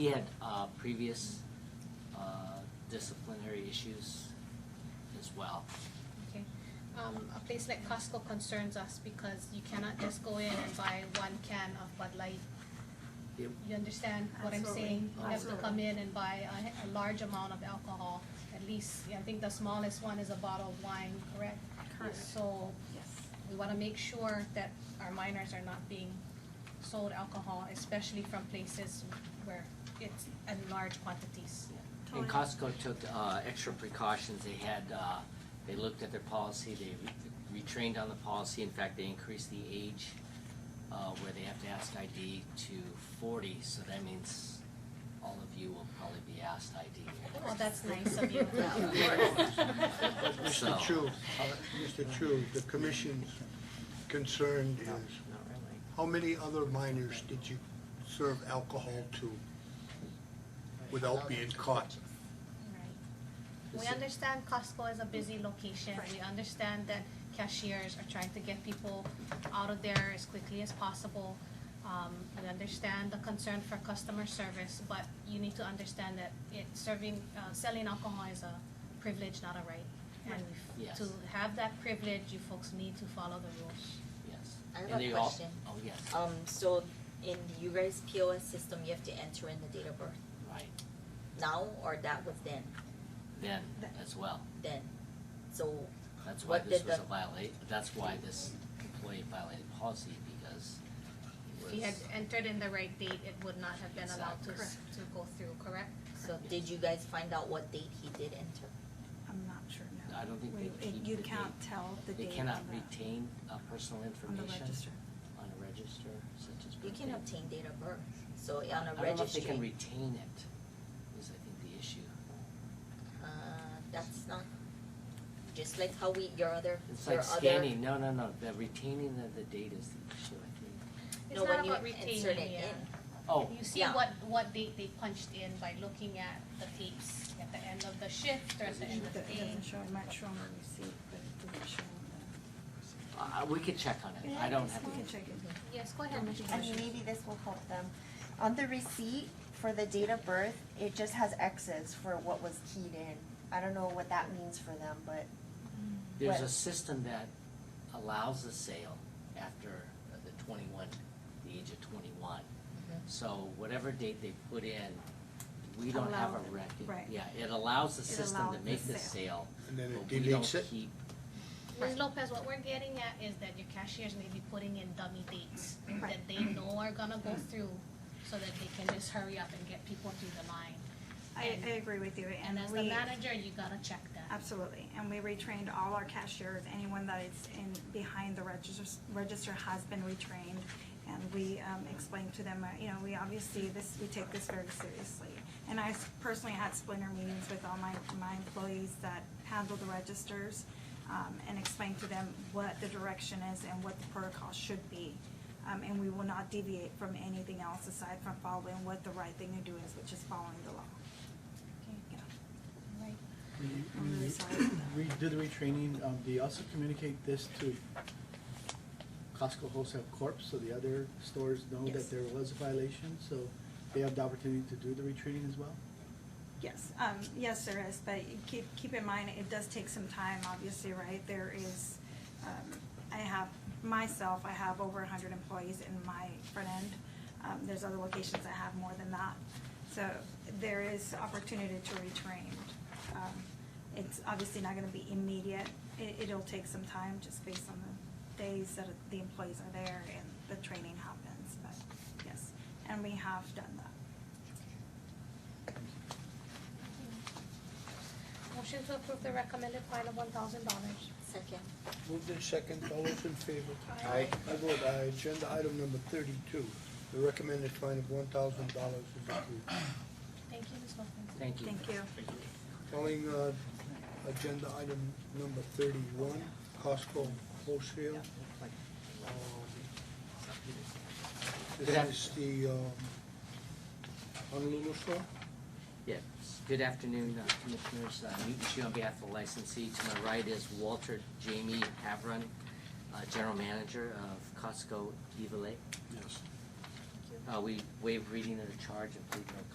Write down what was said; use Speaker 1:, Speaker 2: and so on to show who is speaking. Speaker 1: He had uh, previous uh, disciplinary issues as well.
Speaker 2: Okay. Um, a place like Costco concerns us because you cannot just go in and buy one can of Bud Light.
Speaker 1: Yep.
Speaker 2: You understand what I'm
Speaker 3: Absolutely.
Speaker 2: saying? You have to
Speaker 3: Absolutely.
Speaker 2: come in and buy a, a large amount of alcohol, at least, I think the smallest one is a bottle of wine, correct?
Speaker 3: Correct.
Speaker 2: So,
Speaker 3: Yes.
Speaker 2: we wanna make sure that our minors are not being sold alcohol, especially from places where it's in large quantities.
Speaker 1: And
Speaker 3: Totally.
Speaker 1: Costco took uh, extra precautions. They had, uh, they looked at their policy, they re- retrained on the policy. In fact, they increased the age uh, where they have to ask ID to forty, so that means all of you will probably be asked ID.
Speaker 4: Oh,
Speaker 2: Well, that's nice of you.
Speaker 3: Yeah, of
Speaker 1: So-
Speaker 5: Mr. Chu, uh, Mr. Chu, the commission's concern is, how many other minors did you serve alcohol to without being caught?
Speaker 2: Right. We
Speaker 1: Is it-
Speaker 2: understand Costco is a busy location. We understand that cashiers are trying to get people out of there as quickly as possible. Um, we understand the concern for customer service, but you need to understand that it serving, uh, selling alcohol is a privilege, not a right. And if-
Speaker 1: Yes.
Speaker 2: to have that privilege, you folks need to follow the rules.
Speaker 1: Yes.
Speaker 4: I have
Speaker 1: And
Speaker 4: a
Speaker 1: they all-
Speaker 4: question.
Speaker 1: Oh, yes,
Speaker 4: Um, so in you guys POS system, you have to enter in the date of birth
Speaker 1: right.
Speaker 4: now or that was then,
Speaker 1: Then as well.
Speaker 4: then? So,
Speaker 1: That's why
Speaker 4: What
Speaker 1: this
Speaker 4: did
Speaker 1: was a
Speaker 4: the-
Speaker 1: violate, that's why this employee violated policy because it
Speaker 2: If you had
Speaker 1: was-
Speaker 2: entered in the right date, it would not have been allowed to, s- to go through, correct?
Speaker 4: so did you guys find out what date he did enter?
Speaker 3: I'm not sure, no.
Speaker 1: I don't think
Speaker 3: We-
Speaker 1: they
Speaker 3: it-
Speaker 1: keep
Speaker 3: You
Speaker 1: the
Speaker 3: can't tell the
Speaker 1: They
Speaker 3: date on
Speaker 1: cannot
Speaker 3: the,
Speaker 1: retain uh, personal
Speaker 3: on the
Speaker 1: information
Speaker 3: register.
Speaker 1: on a register such as.
Speaker 4: You can
Speaker 1: birthday.
Speaker 4: obtain date of birth, so on a
Speaker 1: I don't know if they
Speaker 4: registry.
Speaker 1: can retain it, is I think the issue.
Speaker 4: Uh, that's not, just like how we, your other,
Speaker 1: It's
Speaker 4: your
Speaker 1: like
Speaker 4: other.
Speaker 1: scanning, no, no, no, the retaining of the data is the issue, I think.
Speaker 4: No, when you insert it
Speaker 2: yeah.
Speaker 4: in,
Speaker 1: Oh,
Speaker 2: You see
Speaker 4: Yeah.
Speaker 2: what, what date they punched in by looking at the tapes at the end of the shift or at the end of
Speaker 3: It
Speaker 2: the
Speaker 3: it
Speaker 2: day.
Speaker 3: doesn't show, it might show on the receipt, but it doesn't show on
Speaker 1: uh, we could check on
Speaker 3: the.
Speaker 1: it, I don't have.
Speaker 3: We
Speaker 1: the-
Speaker 3: can check it.
Speaker 2: Yes, go ahead, Mr.
Speaker 6: I mean, maybe this will help them. On the receipt for the date of birth, it just has X's for what was keyed in. I don't know what that means for them, but
Speaker 1: There's a
Speaker 6: But-
Speaker 1: system that allows the sale after the twenty-one, the age of twenty-one.
Speaker 4: Mhm.
Speaker 1: So whatever date they put in, we don't have a
Speaker 3: Allow-
Speaker 1: record.
Speaker 3: right.
Speaker 1: Yeah, it allows the
Speaker 3: It
Speaker 1: system to
Speaker 3: allows the
Speaker 1: make the
Speaker 3: sale.
Speaker 1: sale,
Speaker 5: And then it
Speaker 1: but we don't
Speaker 5: deletes it?
Speaker 1: keep,
Speaker 2: Ms. Lopez, what we're getting at is that your cashiers may be putting in dummy dates that
Speaker 3: Right.
Speaker 2: they know are gonna go through so that they can just hurry up and get people through the line.
Speaker 3: I, I agree with you,
Speaker 2: And
Speaker 3: and
Speaker 2: as the
Speaker 3: we,
Speaker 2: manager, you gotta check that.
Speaker 3: absolutely, and we retrained all our cashiers, anyone that is in, behind the register, register has been retrained. And we, um, explained to them, uh, you know, we obviously, this, we take this very seriously. And I s- personally had splinter meetings with all my, my employees that handle the registers, um, and explain to them what the direction is and what the protocol should be. Um, and we will not deviate from anything else aside from following what the right thing to do is, which is following the law. Yeah.
Speaker 2: Right.
Speaker 7: We,
Speaker 3: I'm really
Speaker 7: we-
Speaker 3: sorry about
Speaker 7: we did the retraining, um, they also communicate this to Costco Wholesale Corp., so the other stores know
Speaker 3: Yes.
Speaker 7: that there was a violation, so they have the opportunity to do the retraining as well?
Speaker 3: Yes, um, yes, there is, but you keep, keep in mind, it does take some time, obviously, right? There is, um, I have, myself, I have over a hundred employees in my front end. Um, there's other locations that have more than that. So there is opportunity to retrain. Um, it's obviously not gonna be immediate. It, it'll take some time, just based on the days that the employees are there and the training happens, but yes. And we have done that.
Speaker 2: Motion to approve the recommended fine of one thousand dollars.
Speaker 4: second,
Speaker 5: Moved in second, all those in favor? Aye. I vote aye. Agenda item number thirty-two, the recommended fine of one thousand dollars is approved.
Speaker 2: Thank you, Ms. Lopez.
Speaker 1: thank you.
Speaker 3: Thank you.
Speaker 5: Calling, uh, agenda item number thirty-one, Costco wholesale. Um,
Speaker 1: Good af-
Speaker 5: This is the, um, Honolulu store?
Speaker 1: Yes, good afternoon, uh, Commissioners. Uh, Newton Chu on behalf of the licensee. To my right is Walter Jamie Havron, uh, General Manager of Costco Evile.
Speaker 5: Yes.
Speaker 1: Uh, We waive reading of the charge and plead no